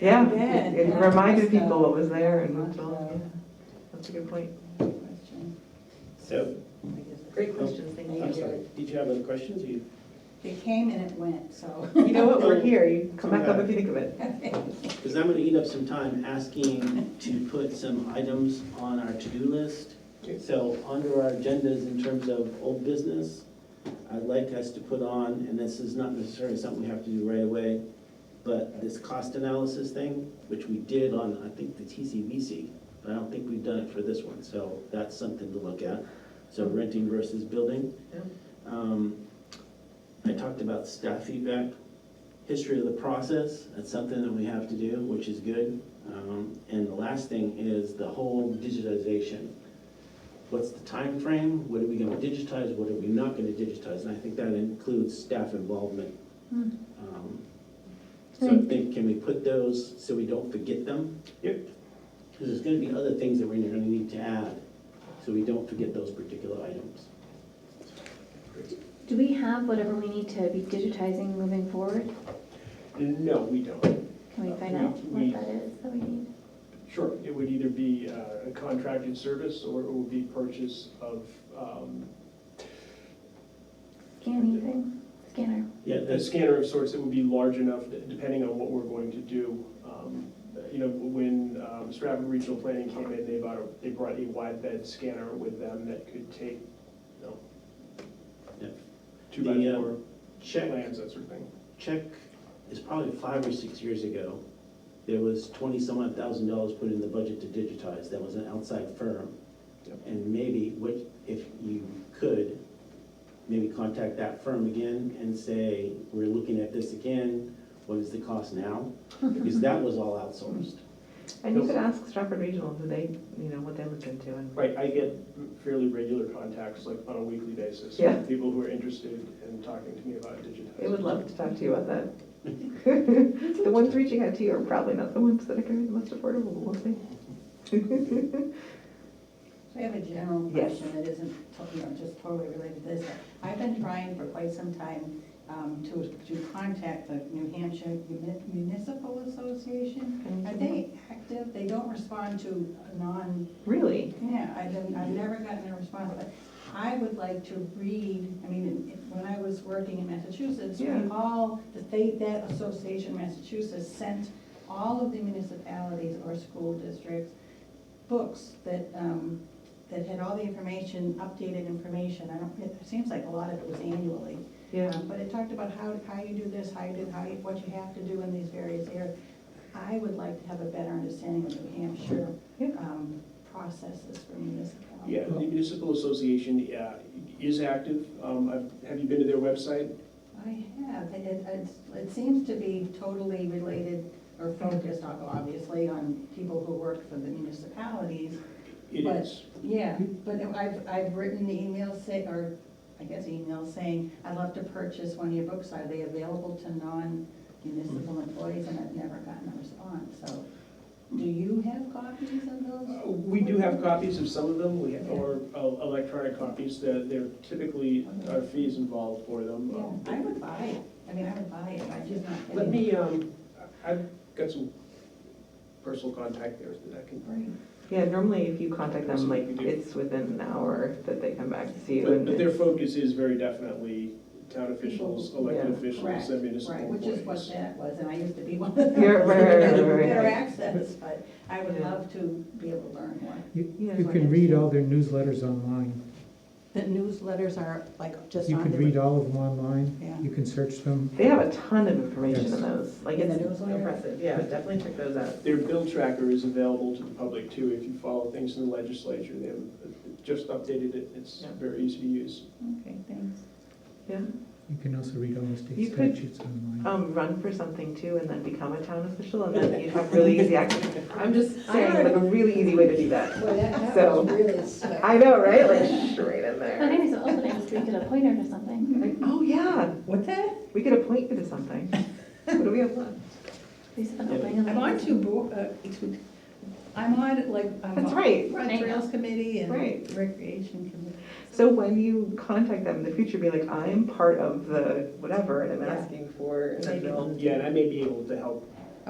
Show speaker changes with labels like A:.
A: Yeah,
B: Bad.
A: it reminded people what was there and moved along, yeah. That's a good point.
C: So,
A: Great questions, thank
C: I'm
A: you.
C: sorry, did you have other questions? You-
B: It came and it went, so.
A: You know what, we're here, you come back up if you think of it.
C: Because I'm going to eat up some time asking to put some items on our to-do list. So under our agendas in terms of old business, I'd like us to put on, and this is not necessarily something we have to do right away, but this cost analysis thing, which we did on, I think, the TCVC, but I don't think we've done it for this one, so that's something to look at. So renting versus building.
A: Yeah.
C: Um, I talked about staff feedback, history of the process, that's something that we have to do, which is good. Um, And the last thing is the whole digitization. What's the time frame? What are we gonna digitize, what are we not gonna digitize? And I think that includes staff involvement.
B: Hmm.
C: Um, So I think, can we put those so we don't forget them? Yep. Because there's gonna be other things that we're gonna need to add, so we don't forget those particular items.
D: Do we have whatever we need to be digitizing moving forward?
E: No, we don't.
D: Can we find
E: We-
D: out
E: we-
D: what that is that we need?
E: Sure, it would either be uh, a contracted service or it would be purchase of, um,
D: Scanning thing, scanner.
C: Yeah,
E: a
C: that's,
E: scanner of sorts that would be large enough, depending on what we're going to do. Um, You know, when um, Stratford Regional Planning came in, they bought, a- they brought a wide bed scanner with them that could take, you know,
C: Yeah.
E: two by
C: The, uh,
E: four
C: check.
E: plans, that sort of thing.
C: check is probably five or six years ago. There was twenty-some odd thousand dollars put in the budget to digitize. That was an outside firm.
E: Yep.
C: And maybe, what, if you could, maybe contact that firm again and say, we're looking at this again. What is the cost now? Because that was all outsourced.
A: And you could ask Stratford Regional who they, you know, what they looked into and.
E: Right, I get fairly regular contacts, like on a weekly basis.
A: Yeah.
E: with People who are interested in talking to me about digitizing.
A: They would love to talk to you about that. The ones reaching out to you are probably not the ones that are going to be the most affordable, but we'll see.
B: I have a general
A: Yes.
B: question that isn't, to- you know, just totally related to this. I've been trying for quite some time um, to, to contact the New Hampshire Muni- Municipal Association. Are they active? They don't respond to non,
A: Really?
B: Yeah, I didn't, I've never gotten a response, but I would like to read, I mean, it- when I was working in Massachusetts, we
A: Yeah.
B: all, the state, that association in Massachusetts sent all of the municipalities or school districts books that, um, that had all the information, updated information, I don't, it seems like a lot of it was annually.
A: Yeah.
B: Um, But it talked about how, how you do this, how you do, how you, what you have to do in these various areas. I would like to have a better understanding of New Hampshire
A: Yeah.
B: um, processes for municipalities.
E: Yeah, the municipal association uh, is active. Um, I've- Have you been to their website?
B: I have, it, it, it's- it seems to be totally related or focused, ob- obviously, on people who work for the municipalities.
E: It
B: Right.
E: is.
B: Yeah, but I've, I've written emails say, or I guess emails saying, I'd love to purchase one of your books, are they available to non-municipal
E: Hmm.
B: employees? And I've never gotten a response, so do you have copies of those?
E: Uh, We do have copies of some of them, we have, or uh, electronic copies, that there typically are fees involved for them.
B: Yeah,
E: Um,
B: I would buy it, I mean, I would buy it, I just not.
E: Let me, um, I- I've got some personal contact there that I can.
B: Right.
A: Yeah, normally if you contact them, like, it's within an hour that they come back to see you
E: But but their
A: and.
E: focus is very definitely town officials, elected
A: Yeah.
E: officials, and municipal
B: Right,
E: employees.
B: which is what that was, and I used to be one of them.
A: Yeah, right, right, right, right, right.
B: Better access, but I would
A: Yeah.
B: love to be able to learn more.
F: You,
A: Yeah.
F: you can read all their newsletters online.
B: The newsletters are like just
F: You can read all of them online.
B: Yeah.
F: You can search them.
A: They have a ton of information in
F: Yes.
A: those, like,
B: In
A: it's
B: the newsletter?
A: impressive, yeah, definitely check those out.
E: Their bill tracker is available to the public too, if you follow things in the legislature, they have just updated it, it's
A: Yeah.
E: very easy to use.
B: Okay, thanks.
A: Yeah.
F: You can also read all the state
A: You could-
F: statutes online.
A: Um, run for something too and then become a town official and then you'd have really easy access. I'm just saying, like, a really easy way to do that.
B: Well, that,
A: that was So-
B: really
A: I know, right? Like, straight in
D: I
A: there.
D: think it's also nice to get a pointer to something.
A: Like, oh, yeah,
B: What's that?
A: we could appoint you to something. What do we have left?
D: Lisa, if I'll bring a
B: I'm on
D: link.
B: two, bo- uh, two- I'm on, like, I'm on.
A: That's right.
B: on
D: I know.
B: Trails Committee and
A: Right.
B: Recreation Committee.
A: So when you contact them in the future, be like, I'm part of the whatever and I'm asking for an
B: Maybe.
A: adult.
E: Yeah, and I may be able to help